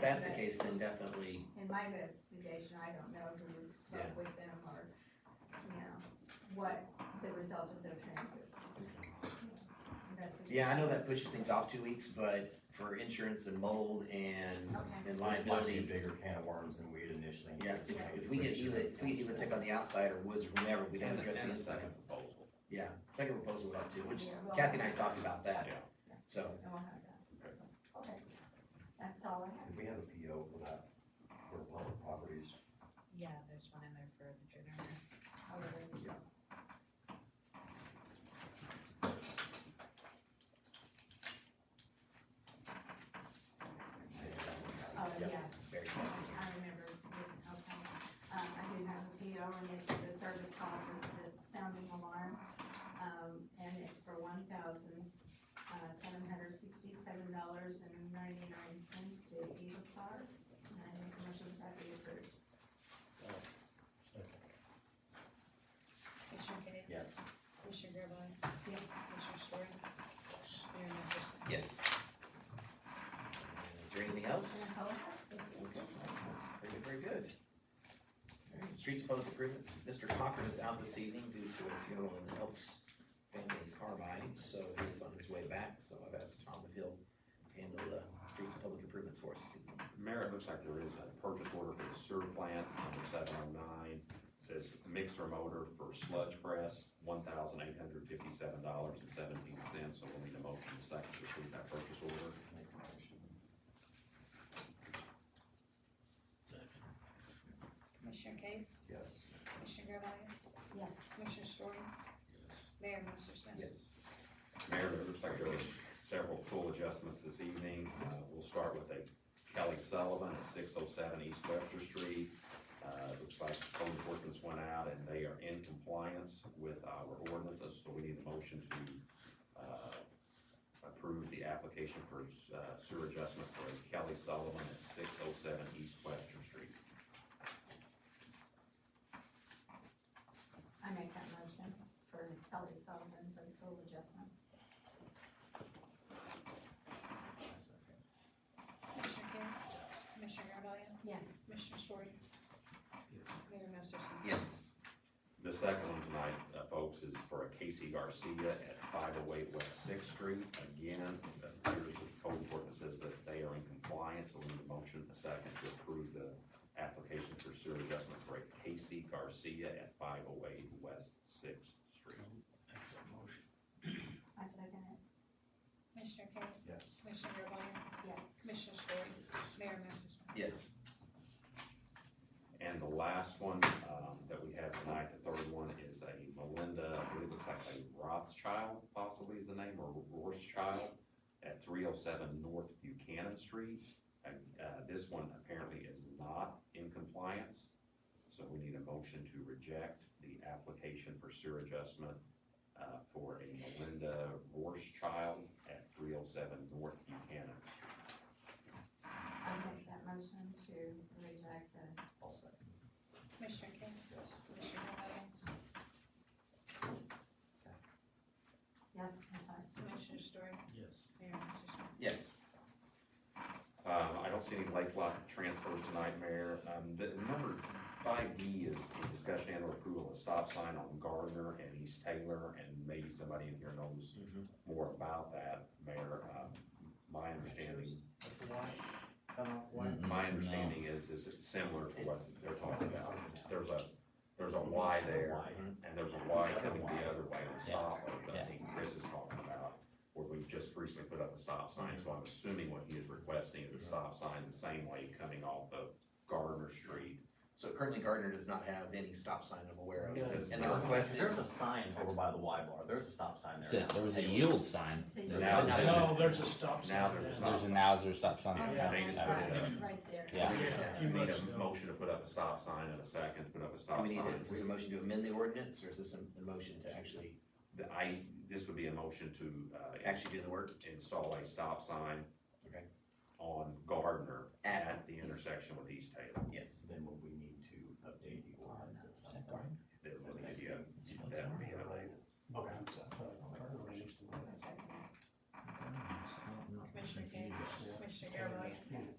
that's the case, then definitely, In my investigation, I don't know who spoke Yeah. with them or, you know, what the result of their transit investigation. yeah, I know that pushes things off two weeks, but for insurance and mold and, Okay, and This might be a liability, bigger can of worms than we had initially Yeah. anticipated. if we get Hewlett, if we get Hewlett Tech on the outside or Woods or whomever, we'd have to And address a- the and a inside. second proposal. Yeah, second proposal would have to, which Yeah, we'll- Kathy and I talked about that, Yeah. so, and we'll have that, so, okay, that's all I have. Did we have a PO for that, for public properties? Yeah, there's one in there for the generator. I'll release it. Oh, Yeah. yes. very I good. remember, yeah, okay. Um, I do have a PO and it's the service call for the sounding alarm. Um, and it's for one thousand, uh, seven hundred sixty-seven dollars and ninety-nine cents to Eva Clark. And I make a motion that be approved. Commissioner Case? Yes. Commissioner Gervail? Yes. Commissioner Story? Mayor Masser Smith? Yes. Is there anything else? And that's all I have. Okay, excellent. Very good, very good. All right, Streets and Public Improvements, Mr. Cochran is out this evening due to a funeral in the Helps family in Carbine, so he is on his way back, so I've asked Tom if he'll handle the Streets and Public Improvements for us this evening. Mayor, it looks like there is a purchase order for the sewer plant, number seven oh nine. Says mixer motor for sludge press, one thousand eight hundred fifty-seven dollars and seventeen cents, so we'll need a motion to second to approve that purchase order. Make a motion. Commissioner Case? Yes. Commissioner Gervail? Yes. Commissioner Story? Mayor Masser Smith? Yes. Mayor, it looks like there was several pool adjustments this evening. Uh, we'll start with a Kelly Sullivan at six oh seven East Webster Street. Uh, it looks like code enforcement's went out and they are in compliance with our ordinances, so we need a motion to, uh, approve the application for, uh, sewer adjustment for Kelly Sullivan at six oh seven East Webster Street. I make that motion for Kelly Sullivan for the full adjustment. Commissioner Case? Commissioner Gervail? Yes. Commissioner Story? Mayor Masser Smith? Yes. The second one tonight, uh, folks, is for a Casey Garcia at five oh eight West Sixth Street. Again, it appears that code enforcement says that they are in compliance, so we need a motion, a second, to approve the application for sewer adjustment for a Casey Garcia at five oh eight West Sixth Street. I second it. Commissioner Case? Yes. Commissioner Gervail? Yes. Commissioner Story? Mayor Masser Smith? Yes. And the last one, um, that we have tonight, the third one is a Melinda, I believe it looks like a Rothschild possibly is the name, or Rorschild at three oh seven North Buchanan Street. And, uh, this one apparently is not in compliance, so we need a motion to reject the application for sewer adjustment uh, for a Melinda Rorschild at three oh seven North Buchanan. I make that motion to reject the I'll second. Commissioner Case? Yes. Commissioner Gervail? Yes, I'm sorry. Commissioner Story? Yes. Mayor Masser Smith? Yes. Um, I don't see any lake lot transfers tonight, Mayor. Um, the number five D is a discussion and or approval of stop sign on Gardner and East Taylor, and maybe somebody in here knows more about that, Mayor. Um, My understanding, Mm-hmm. my Mm-hmm. understanding is, is it's similar to what It's- they're talking about. There's a, there's a Y there, and there's a Y coming the other way, the stop, that I think Chris is talking about, where we just recently put up a stop sign, so I'm assuming what he is requesting is a stop sign the same way coming off of Gardner Street. So currently Gardner does not have any stop sign I'm aware of. Yeah. And the request There's is, a sign over by the Y bar, there's a stop sign That's there. it. now. There was a Anyway, yield sign. So you- There's Now a- there's- No, there's a stop sign. Now there's a now. stop There's a sign. Nowzer stop sign. Yeah, Oh, yeah, yeah, they that's just right, put it right there. Yeah. Yeah, We too need much a now. motion to put up a stop sign and a second to put up a do stop we need, a- sign. is this a motion to amend the ordinance, or is this a, a motion to actually, The- I, this would be a motion to, uh, actually do the work? install a stop sign Okay. on Gardner At- at the intersection with East Taylor. Yes. Then what we need to update the ordinance at some point. That would be, uh, that would be a- Okay. I second that. Commissioner Case? Commissioner Gervail? Yes.